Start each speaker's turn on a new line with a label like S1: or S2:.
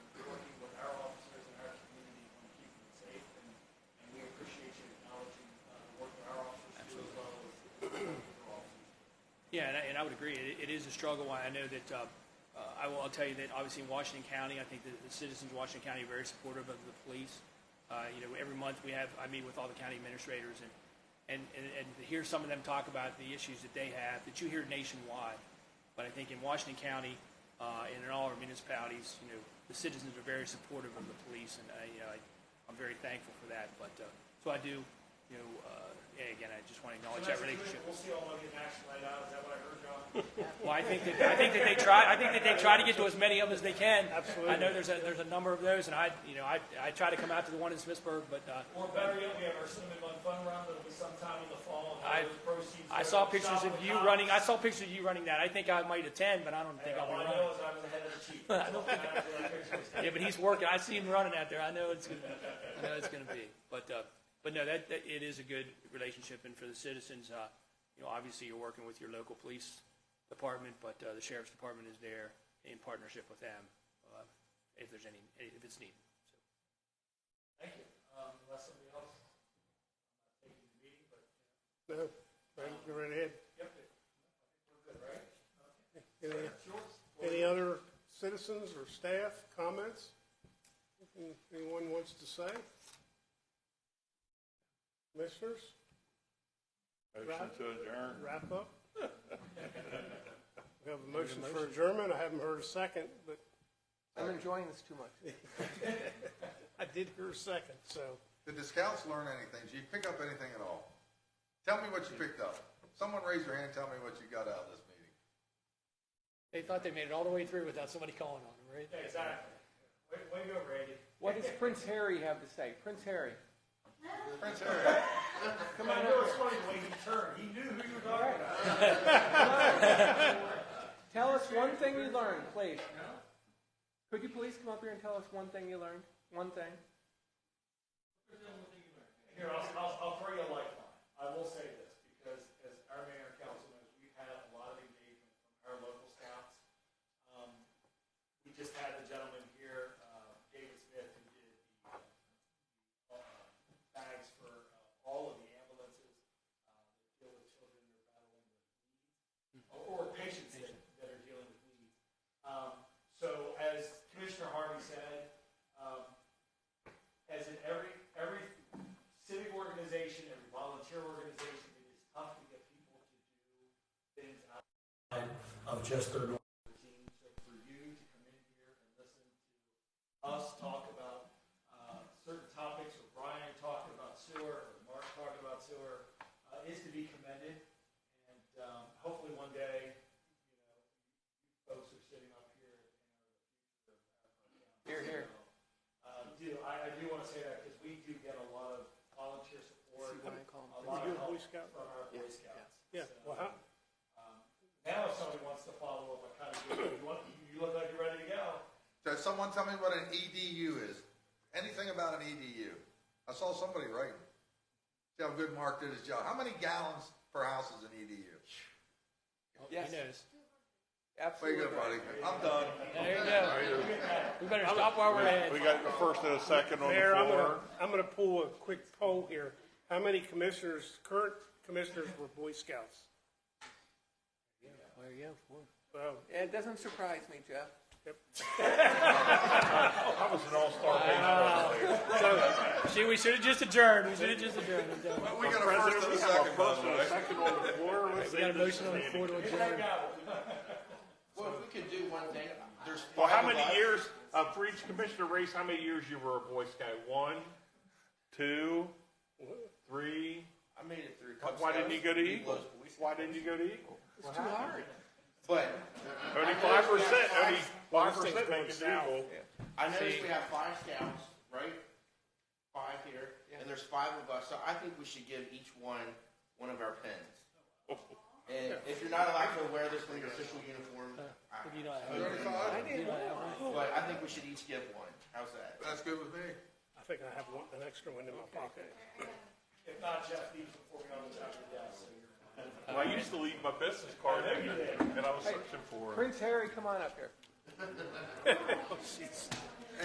S1: uh,
S2: I would agree. It, it is a struggle. I know that uh, uh, I will I'll tell you that obviously in Washington County, I think the, the citizens of Washington County are very supportive of the police. Uh, you know, every month we have I meet with all the county administrators and and, and and to hear some of them talk about the issues that they have that you hear nationwide. But I think in Washington County uh, and in all our municipalities, you know, the citizens are very supportive of the police, and I, you know, I, uh, I'm very thankful for that. But uh, so I do. You know, uh, yeah, again, I just want to acknowledge that relationship.
S1: We'll see all of you in action laid out, is that what I heard, John?
S2: Well, I think that, I think that they try, I think that they try to get to as many of them as they can. Absolutely. I know there's a, there's a number of those, and I, you know, I, I try to come out to the one in Smithsburg, but, uh,
S1: Or better yet, we have our cinnamon bun fun run, that'll be sometime in the fall, and
S2: I-
S1: those proceeds. go
S2: I saw
S1: to
S2: pictures
S1: shop
S2: of
S1: the
S2: you
S1: cops.
S2: running, I saw pictures of you running that. I think I might attend, but I don't think
S1: And
S2: I'll
S1: All
S2: be
S1: I know
S2: running.
S1: is I was ahead of the chief. That's
S2: Yeah, but he's working. I see him running out there. I know it's gonna, I know it's gonna be. But, uh, but no, that, that, it is a good relationship, and for the citizens, uh, you know, obviously you're working with your local police department, but, uh, the sheriff's department is there in partnership with them, uh, if there's any, if it's needed. So.
S1: Thank you. Um, Unless somebody else, I'm not taking the meeting, but
S3: No, right, go right ahead.
S1: we're good, right?
S3: Any,
S1: George?
S3: any other citizens or staff comments? Anything Anyone wants to say? Commissioners,
S4: Motion to adjourn.
S3: wrap up? We have a motion for adjournment. I haven't heard a second, but
S5: I'm enjoying this too much.
S3: I did hear a second, so.
S6: Did the scouts learn anything? Did you pick up anything at all? Tell me what you picked up. Someone raise your hand and tell me what you got out of this meeting.
S2: They thought they made it all the way through without somebody calling on them, right?
S1: Yeah, Exactly. Way, way to go, Randy.
S5: What does Prince Harry have to say? Prince Harry.
S6: Prince Harry,
S1: Come on, I know it's funny the way he turned, he knew who you were talking about.
S5: Tell us one thing you learned, please. Could you please come up here and tell us one thing you learned? One thing?
S1: Here, I'll, I'll, I'll throw you a lifeline. I will say this, because as our mayor and council knows, we've had a lot of engagement from our local scouts. Um, we just had the gentleman here, uh, David Smith, who did the, uh, bags for uh, all of the ambulances, uh, that deal with children who are battling with needs, or- or patients that, that are dealing with needs. Um, so as Commissioner Harvey said, um, as in every, every civic organization, every volunteer organization, it is tough to get people to do things outside of just their normal routine. So for you to come in here and listen to us talk about uh, certain topics, or Brian talk about sewer, or Mark talk about sewer, uh, is to be commended. And um, hopefully one day, you know, folks are sitting up here and are the future of our
S5: Here, here.
S1: uh, do, I, I do want to say that because we do get a lot of volunteer support,
S5: See what I call 'em.
S1: a lot
S3: You
S1: of
S3: a Boy
S1: help
S3: Scout?
S1: from our Boy Scouts.
S3: Yeah,
S1: So, um,
S3: well, how-
S1: Now if somebody wants to follow up, I kind of do, you want, you look like you're ready to go.
S6: so someone tell me what an EDU is. Anything about an EDU? I saw somebody writing. See how good Mark did his job. How many gallons per house is an E EDU?
S2: Oh, He
S5: Yes,
S2: knows.
S6: Way to
S5: absolutely.
S6: go, buddy. I'm done.
S2: There you go. We better stop while we're
S4: We
S2: ahead.
S4: got the first and a second on the
S3: Mayor, I'm
S4: floor.
S3: gonna, I'm gonna pull a quick poll here. How many commissioners, current commissioners were Boy Scouts?
S5: There you go. Four.
S3: Well,
S5: It doesn't surprise me, Jeff.
S4: I was an all-star baseball player.
S2: See, we should have just adjourned. We should have just adjourned. I'm done.
S6: Well, we got a first and a second, by the way.
S4: Second on the floor, let's
S2: We got a motion on the floor to adjourn.
S7: Well, if we could do one thing, there's.
S4: Well, how
S7: five of us.
S4: many years, uh, for each commissioner race, how many years you were a Boy Scout? One, two, three?
S7: I made it through.
S4: Why didn't you go to Eagle?
S7: Eagles?
S4: Why didn't you go to Eagle?
S7: But
S4: Only five percent, only five percent make it to Eagle.
S7: I noticed we have five scouts, right? Five here, and there's five of us, so I think we should give each one, one of our pins. And
S4: Oh.
S7: if you're not allowed to wear this in your official uniform, I-
S2: You don't have-
S6: Thirty-five?
S2: you don't have one.
S7: but I think we should each give one. How's that?
S6: That's good with me.
S3: I think I have one, an extra one in my pocket.
S1: If not, Jeff, leave before we go on the top of the desk.
S4: Well, I used to leave my business card in there, and I was searching for it.
S5: Prince Harry, come on up here.